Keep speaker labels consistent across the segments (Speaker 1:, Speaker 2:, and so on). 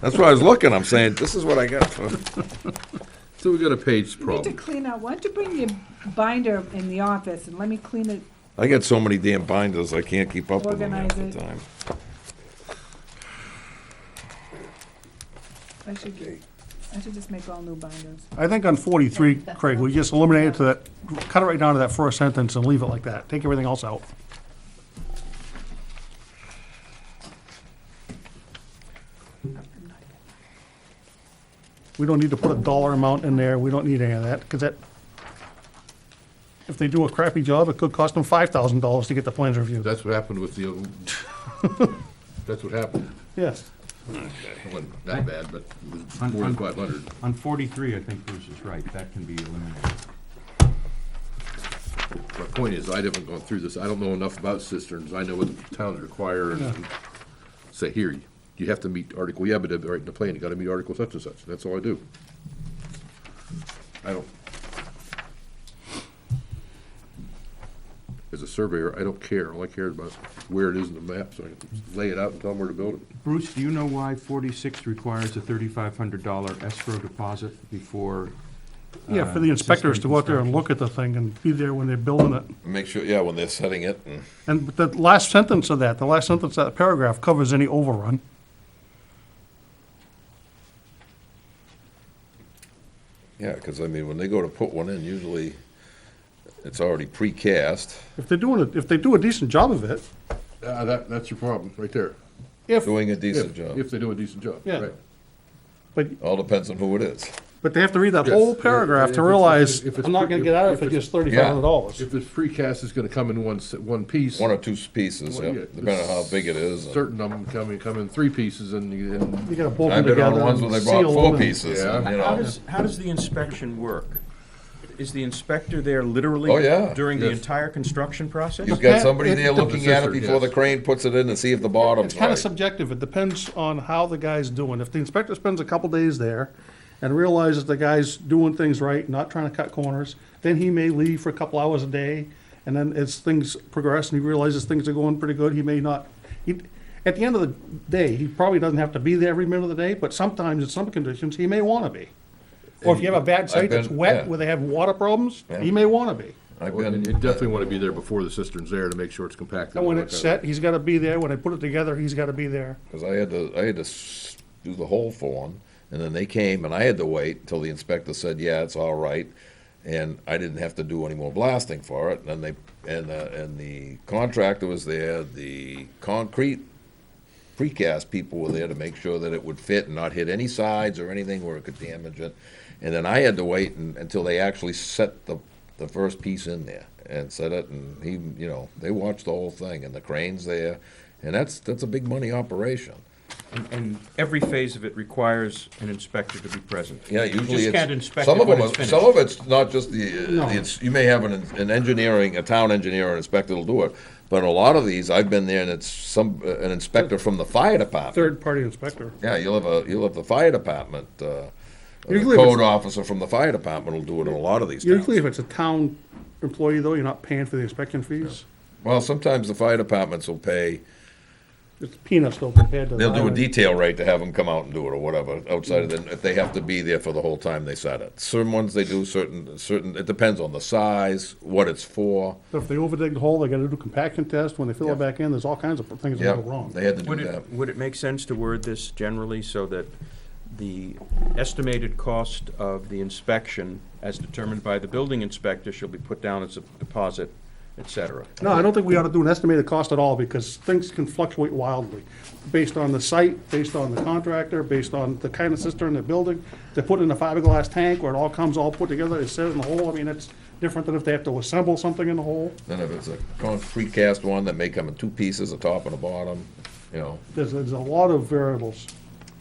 Speaker 1: That's why I was looking, I'm saying, this is what I got for,
Speaker 2: So we got a page
Speaker 3: You need to
Speaker 2: problem.
Speaker 3: clean out, why don't you bring your binder in the office and let me clean it?
Speaker 1: I got so many damn binders, I can't keep up with them half the
Speaker 3: Organize it.
Speaker 1: time.
Speaker 3: I should, I should just make all new binders.
Speaker 4: I think on forty-three, Craig, we just eliminate it to that, cut it right down to that first sentence and leave it like that. Take everything else out. We don't need to put a dollar amount in there. We don't need any of that, because that, if they do a crappy job, it could cost them five thousand dollars to get the plans reviewed.
Speaker 2: That's what happened with the, old- that's what happened.
Speaker 4: Yes.
Speaker 2: It wasn't that bad, but it was
Speaker 5: Un-
Speaker 2: four
Speaker 5: un-
Speaker 2: and five hundred.
Speaker 5: On forty-three, I think Bruce is right, that can be eliminated.
Speaker 2: My point is, I haven't gone through this. I don't know enough about cisterns. I know what the towns require and say, here, you have to meet article, yeah, but uh, right in the plan, you gotta meet article such and such. That's all I do. I don't. As a surveyor, I don't care. All I care about is where it is in the map, so I can lay it out and tell them where to build it.
Speaker 5: Bruce, do you know why forty-six requires a thirty-five hundred dollar escrow deposit before?
Speaker 4: Yeah, for the
Speaker 5: uh,
Speaker 4: inspectors to
Speaker 5: system
Speaker 4: go out there and
Speaker 5: construction?
Speaker 4: look at the thing and be there when they're building it.
Speaker 1: Make sure, yeah, when they're setting it, and
Speaker 4: And the last sentence of that, the last sentence of that paragraph covers any overrun.
Speaker 1: yeah, because I mean, when they go to put one in, usually it's already precast.
Speaker 4: If they're doing it, if they do a decent job of it,
Speaker 2: Uh, that, that's your problem, right there.
Speaker 4: if,
Speaker 1: doing a decent
Speaker 2: If,
Speaker 1: job.
Speaker 2: if they do a decent job,
Speaker 4: Yeah.
Speaker 2: right.
Speaker 4: but,
Speaker 1: All depends on who it is.
Speaker 4: but they have to read that
Speaker 2: Yes.
Speaker 4: whole paragraph
Speaker 2: If
Speaker 4: to
Speaker 2: it's-
Speaker 4: realize,
Speaker 2: if it's-
Speaker 4: I'm not gonna get out of it for just thirty-five hundred dollars.
Speaker 2: If this precast is gonna come in one, s- one piece.
Speaker 1: One or two pieces,
Speaker 2: Well,
Speaker 1: yeah,
Speaker 2: yeah,
Speaker 1: depending on how big it is. and-
Speaker 2: Certain of them come in, come in three pieces and you,
Speaker 4: You
Speaker 2: and
Speaker 4: gotta bolt them
Speaker 1: I've been on
Speaker 4: together and
Speaker 1: ones
Speaker 4: seal
Speaker 1: where
Speaker 4: them.
Speaker 1: they brought four
Speaker 4: and-
Speaker 1: pieces, and,
Speaker 2: Yeah.
Speaker 1: you
Speaker 6: How
Speaker 1: know,
Speaker 6: does, how does the inspection work? Is the inspector there literally?
Speaker 1: Oh, yeah.
Speaker 6: During the
Speaker 2: Yes.
Speaker 6: entire construction process?
Speaker 1: you've got somebody
Speaker 4: It-
Speaker 1: there
Speaker 4: it-
Speaker 1: looking at it
Speaker 2: Scissor,
Speaker 1: before the
Speaker 2: yes.
Speaker 1: crane puts it in to see if the bottom's
Speaker 4: It's kinda
Speaker 1: right.
Speaker 4: subjective, it depends on how the guy's doing. If the inspector spends a couple days there and realizes the guy's doing things right, not trying to cut corners, then he may leave for a couple hours a day, and then as things progress and he realizes things are going pretty good, he may not. he- At the end of the day, he probably doesn't have to be there every minute of the day, but sometimes in some conditions, he may wanna be. Or if you have a bad site that's
Speaker 1: been-
Speaker 4: wet,
Speaker 1: yeah.
Speaker 4: where they have water problems,
Speaker 1: Yeah.
Speaker 4: he may wanna be.
Speaker 1: I've
Speaker 2: you
Speaker 1: been,
Speaker 2: definitely wanna be there before the cistern's there to make sure it's compacted.
Speaker 4: And when
Speaker 2: all that
Speaker 4: it's
Speaker 2: kind of-
Speaker 4: set, he's gotta be there, when they put it together, he's gotta be there.
Speaker 1: because I had to, I had to s- do the whole form, and then they came, and I had to wait until the inspector said, yeah, it's all right, and I didn't have to do any more blasting for it, and then they, and, uh, and the contractor was there, the concrete precast people were there to make sure that it would fit and not hit any sides or anything where it could damage it. And then I had to wait un until they actually set the, the first piece in there and set it, and he, you know, they watched the whole thing, and the crane's there, and that's, that's a big money operation.
Speaker 6: And, and every phase of it requires an inspector to be present.
Speaker 1: Yeah, usually
Speaker 6: You just can't
Speaker 1: it's,
Speaker 6: inspect
Speaker 1: some
Speaker 6: it
Speaker 1: of
Speaker 6: when
Speaker 1: them,
Speaker 6: it's
Speaker 1: are-
Speaker 6: finished.
Speaker 1: some of it's not just the,
Speaker 4: No.
Speaker 1: uh, it's, you may have an, an engineering, a town engineer or inspector will do it. But a lot of these, I've been there and it's some, uh, an inspector from the fire department.
Speaker 4: Third-party inspector.
Speaker 1: Yeah, you'll have a, you'll have the fire department, uh, the
Speaker 4: Usually if it's-
Speaker 1: code officer from the fire department will do it in a lot of these
Speaker 4: Usually if
Speaker 1: towns.
Speaker 4: it's a town employee though, you're not paying for the inspection fees.
Speaker 1: Well, sometimes the fire departments will pay,
Speaker 4: It's peanuts though compared to. the
Speaker 1: they'll do a
Speaker 4: highway.
Speaker 1: detail rate to have them come out and do it or whatever, outside of the, if they have to be there for the whole time they set it. Certain ones they do, certain, certain, it depends on the size, what it's for.
Speaker 4: So If they overdig the hole, they gotta do compaction test. When they fill
Speaker 1: Yeah.
Speaker 4: it back in, there's all kinds of things that
Speaker 1: Yeah,
Speaker 4: go wrong.
Speaker 1: they had to
Speaker 6: Would
Speaker 1: do that.
Speaker 6: it, would it make sense to word this generally so that the estimated cost of the inspection as determined by the building inspector shall be put down as a deposit, et cetera?
Speaker 4: No, I don't think we ought to do an estimated cost at all because things can fluctuate wildly based on the site, based on the contractor, based on the kind of cistern they're building. They put in a fiberglass tank where it all comes all put together, it's set in the hole. I mean, it's different than if they have to assemble something in the hole.
Speaker 1: Then if it's a concrete cast one that may come in two pieces, a top and a bottom, you know,
Speaker 4: There's, there's a lot of variables.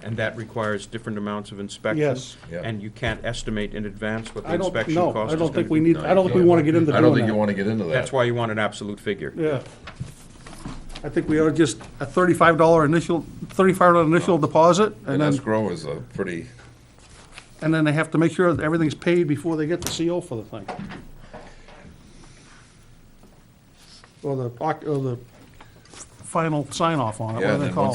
Speaker 6: And that requires different amounts of inspection?
Speaker 4: Yes.
Speaker 1: Yeah.
Speaker 6: And you can't estimate in advance what the
Speaker 4: I don't,
Speaker 6: inspection cost is
Speaker 4: no, I don't
Speaker 6: gonna
Speaker 4: think we
Speaker 6: be?
Speaker 4: need, I don't think we wanna get into
Speaker 1: I
Speaker 4: doing
Speaker 1: don't think you
Speaker 4: that.
Speaker 1: wanna get into that.
Speaker 6: That's why you want an absolute figure.
Speaker 4: Yeah. I think we ought to just, a thirty-five dollar initial, thirty-five dollar initial deposit, and
Speaker 1: An
Speaker 4: then,
Speaker 1: escrow is a pretty,
Speaker 4: and then they have to make sure that everything's paid before they get the CO for the thing. Or the, oc- or the final sign-off on it,
Speaker 1: Yeah,
Speaker 4: whatever
Speaker 1: and
Speaker 4: they
Speaker 1: then
Speaker 4: call it.
Speaker 1: once